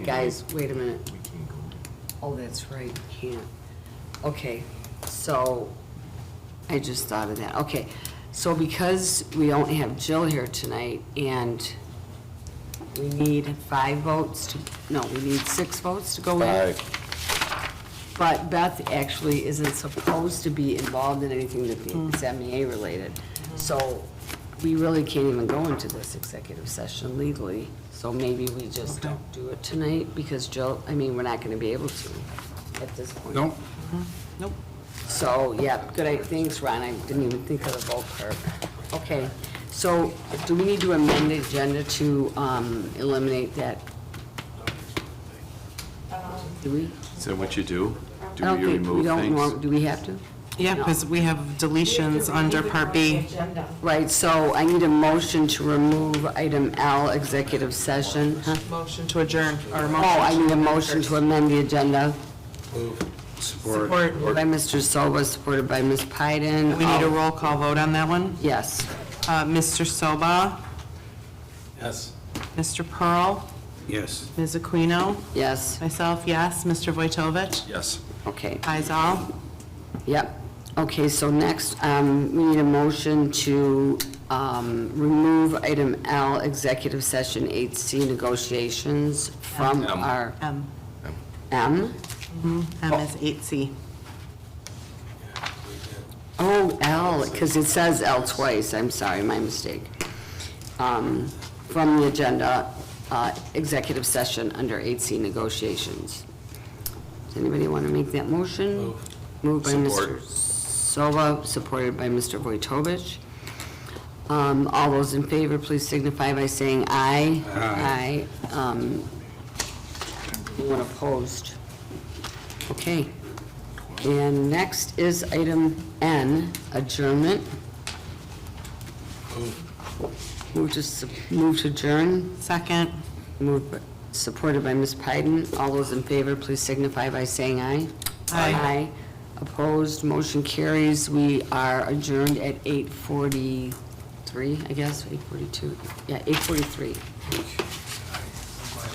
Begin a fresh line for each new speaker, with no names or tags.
Guys, wait a minute. Oh, that's right, we can't. Okay, so, I just thought of that, okay. So because we don't have Jill here tonight, and we need five votes to, no, we need six votes to go in.
Five.
But Beth actually isn't supposed to be involved in anything that is MEA related. So we really can't even go into this executive session legally. So maybe we just don't do it tonight because Jill, I mean, we're not going to be able to at this point.
Nope.
Nope.
So, yeah, good, idea. thanks, Ron, I didn't even think of the vote clerk. Okay, so do we need to amend the agenda to um, eliminate that? Do we?
So what you do?
I
Um, Do
don't
you
think- we
remove
don't
things?
nor- Do we have to?
Yeah,
No.
because we have deletions under Part B.
Right, so I need a motion to remove item L, executive session. huh?
Motion to adjourn, or motion.
Oh, I need a motion to amend the agenda
Support.
by Mr. Silva, supported by Ms. Pyden.
We need a
Oh,
roll call vote on that one.
Yes.
Uh, Mr. Soba,
Yes.
Mr. Pearl,
Yes.
Ms. Aquino,
Yes,
myself, yes, Mr. Vojtovich,
Yes.
okay.
ayes all.
Yep. Okay, so next, um, we need a motion to um, remove item L, executive session 8C negotiations from
M.
our
M,
M.
M is 8C.
Oh, L, because it says L twice, I'm sorry, my mistake. Um, From the agenda, uh, executive session under 8C negotiations. Does anybody want to make that motion? Move. by Mr.
Support.
Silva, supported by Mr. Vojtovich. Um, All those in favor, please signify by saying aye. Aye. Um, Anyone opposed? Okay. And next is item N, adjournment. Move to, su- move to adjourn,
Second,
moved, by- supported by Ms. Pyden. All those in favor, please signify by saying aye.
Aye.
Opposed, motion carries. We are adjourned at eight forty-three, I guess, eight forty-two, yeah, eight forty-three.